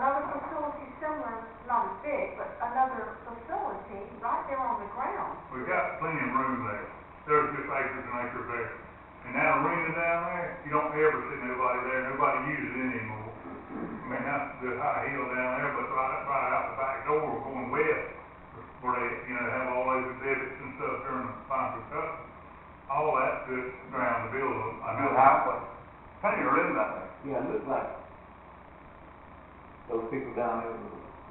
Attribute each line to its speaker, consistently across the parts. Speaker 1: facility similar, not as big, but another facility right there on the ground.
Speaker 2: We've got plenty of room there, there's just acres and acres there. And that arena down there, you don't ever see nobody there, nobody uses it anymore. I mean, that's the high hill down there, but right, right out the back door going west, where they, you know, have all those exhibits and stuff during the final cut. All that's good ground to build on. I know.
Speaker 3: Good highway. Plenty of room out there.
Speaker 4: Yeah, it looked like those people down there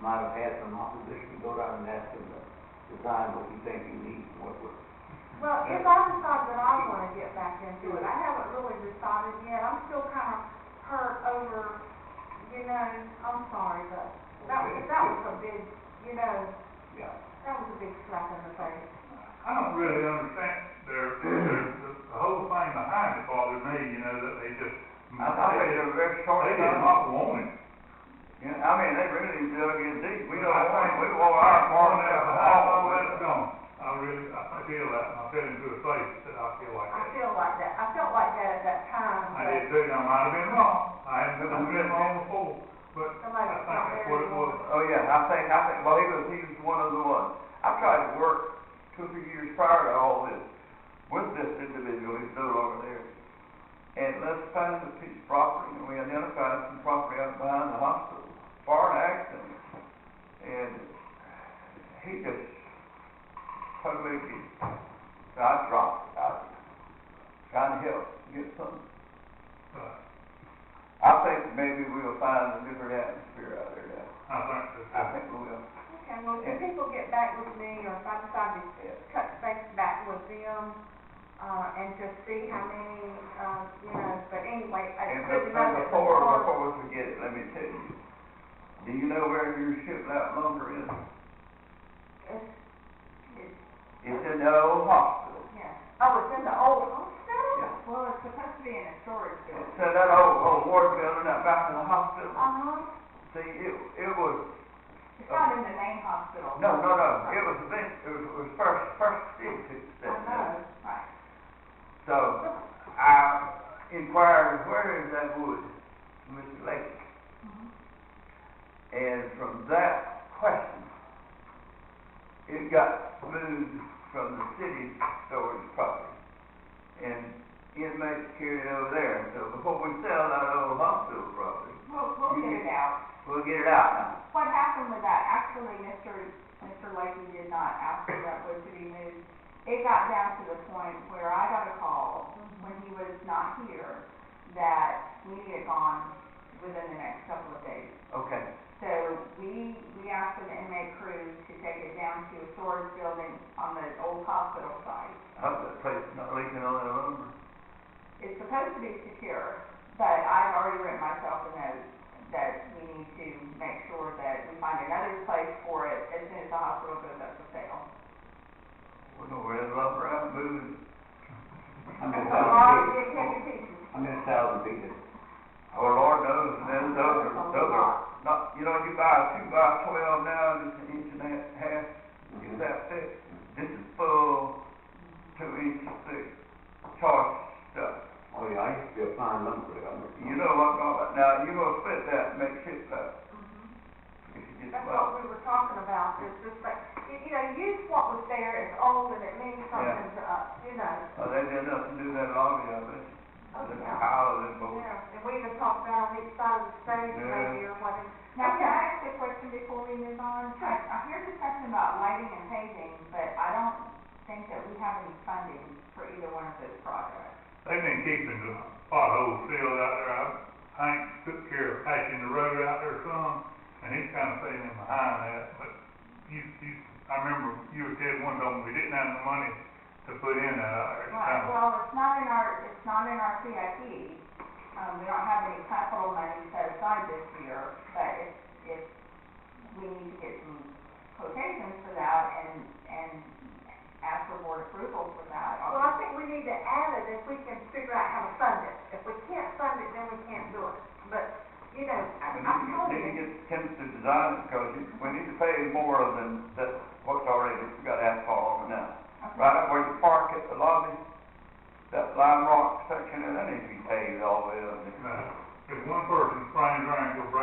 Speaker 4: might have had some opposition, go down and ask them to design what you think you need, and what would.
Speaker 1: Well, if I decide that I wanna get back into it, I haven't really decided yet, I'm still kinda hurt over, you know, I'm sorry, but that was, that was a big, you know,
Speaker 4: Yeah.
Speaker 1: that was a big slap in the face.
Speaker 2: I don't really understand their, their, the- the whole thing behind it bothers me, you know, that they just.
Speaker 3: I, I think they're very short
Speaker 2: They did
Speaker 3: sighted.
Speaker 2: not want it.
Speaker 3: Yeah, I mean, they really dug in deep. We don't
Speaker 2: I
Speaker 3: want,
Speaker 2: think-
Speaker 3: we want our farm
Speaker 2: I
Speaker 3: out of the
Speaker 2: think
Speaker 3: hall.
Speaker 2: All that's gone. I really, I feel that, and I fell into a place that I feel like
Speaker 1: I
Speaker 2: that.
Speaker 1: feel like that, I felt like that at that time,
Speaker 2: I
Speaker 1: but
Speaker 2: did too, and I might have been wrong, I haven't been, I've been wrong before, but
Speaker 1: somebody
Speaker 2: I
Speaker 1: was
Speaker 2: think
Speaker 1: not there
Speaker 2: that's what it was.
Speaker 1: anymore.
Speaker 3: Oh, yeah, I think, I think, well, he was, he was one of the ones. I tried to work two, or three years prior to all this with this individual, he's no longer there. And let's find a piece of property, and we identified some property out behind the hospital, barn accident. And he just totally, I dropped out, trying to help, get something.
Speaker 2: But
Speaker 3: I think maybe we'll find a different atmosphere out there now.
Speaker 2: I think that.
Speaker 3: I think we will.
Speaker 1: Okay, well, if people get back with me, or if I decide to cut space back with them, uh, and just see how many, uh, you know, but anyway, I
Speaker 3: And
Speaker 1: couldn't
Speaker 3: before,
Speaker 1: know.
Speaker 3: before, before we forget it, let me tell you, do you know where your ship out lumber is?
Speaker 1: It's- it's-
Speaker 3: It's in the old hospital.
Speaker 1: yeah. Oh, it's in the old hospital?
Speaker 3: Yeah.
Speaker 5: Well, it's supposed to be in a storage building.
Speaker 3: It's in that old, old ward building out back in the hospital.
Speaker 1: Uh-huh.
Speaker 3: See, it, it was,
Speaker 5: It's not in the main hospital.
Speaker 3: no, no, no, it was a bit, it was, it was first, first fixed. it's
Speaker 1: I
Speaker 3: that now.
Speaker 1: know.
Speaker 5: Right.
Speaker 3: So, I inquired, where is that wood, Mr. Lake?
Speaker 5: Mhm.
Speaker 3: And from that question, it got moved from the city storage property. And inmates carried it over there, so before we sell that old hospital property,
Speaker 5: We'll, we'll get it out.
Speaker 3: we'll get it out
Speaker 5: What happened with that, actually, Mr., Mr. Lakey did not ask for that wood to be moved. It got down to the point where I got a call when he was not here that we need it gone within the next couple of days.
Speaker 3: now. Okay,
Speaker 5: So we, we asked for the inmate crew to take it down to a storage building on the old hospital site.
Speaker 3: I hope that place is not leaking on that lumber.
Speaker 5: It's supposed to be secure, but I've already written myself a note that we need to make sure that we find another place for it as soon as the hospital goes up for sale.
Speaker 3: We know where that lumber out moving.
Speaker 4: I mean, a
Speaker 1: So, all
Speaker 4: thousand
Speaker 1: you did, take your
Speaker 4: people,
Speaker 1: pieces.
Speaker 4: I mean, a thousand people,
Speaker 3: Oh, Lord knows, and then those are, those are, not, you know, you buy a two by twelve now, and it's an inch and a half, Is that thick? This is full, two inch thick, charged stuff.
Speaker 4: oh yeah, I used to be a fine lumber, I remember.
Speaker 3: You know what I'm talking about. Now, you gonna split that and make shit up if you
Speaker 1: Mm-hmm.
Speaker 3: get
Speaker 1: That's
Speaker 3: well.
Speaker 1: what we were talking about, it's just like, you you know, use what was there, it's old and it means something to us, you know.
Speaker 3: Oh, they did nothing to do that lobby of it.
Speaker 1: Oh,
Speaker 3: There's a
Speaker 1: yeah.
Speaker 3: pile of them both.
Speaker 1: Yeah, and we even talked about on each side of the stage
Speaker 3: Yeah.
Speaker 1: maybe or whatever.
Speaker 5: Now, can I ask a question before we move on? I, I hear discussion about lighting and paving, but I don't think that we have any funding for either one of those projects.
Speaker 2: They've been keeping the potholes filled out there, I, Hank took care of patching the road out there some, and he's kinda staying in behind that, but you, you, I remember you were dead one time, we didn't have the money to put in that out there at the
Speaker 5: Right,
Speaker 2: time.
Speaker 5: well, it's not in our, it's not in our CIP. Um, we don't have any capital money set aside this year, but if, if we need to get some quotations for that and, and ask for board approval for that.
Speaker 1: Well, I think we need to add it if we can figure out how to fund it. If we can't fund it, then we can't do it. But, you know, I-
Speaker 3: And
Speaker 1: I'm
Speaker 3: you
Speaker 1: telling
Speaker 3: need to
Speaker 1: you,
Speaker 3: get Tim to design it, because you, we need to pay more than, that, what's already, we got asphalt on it now.
Speaker 5: Okay.
Speaker 3: Right up where you park at the lobby, that lime rock section, there, that needs to be paved all the way up there.
Speaker 2: Now, if one person sprains their ankle, breaks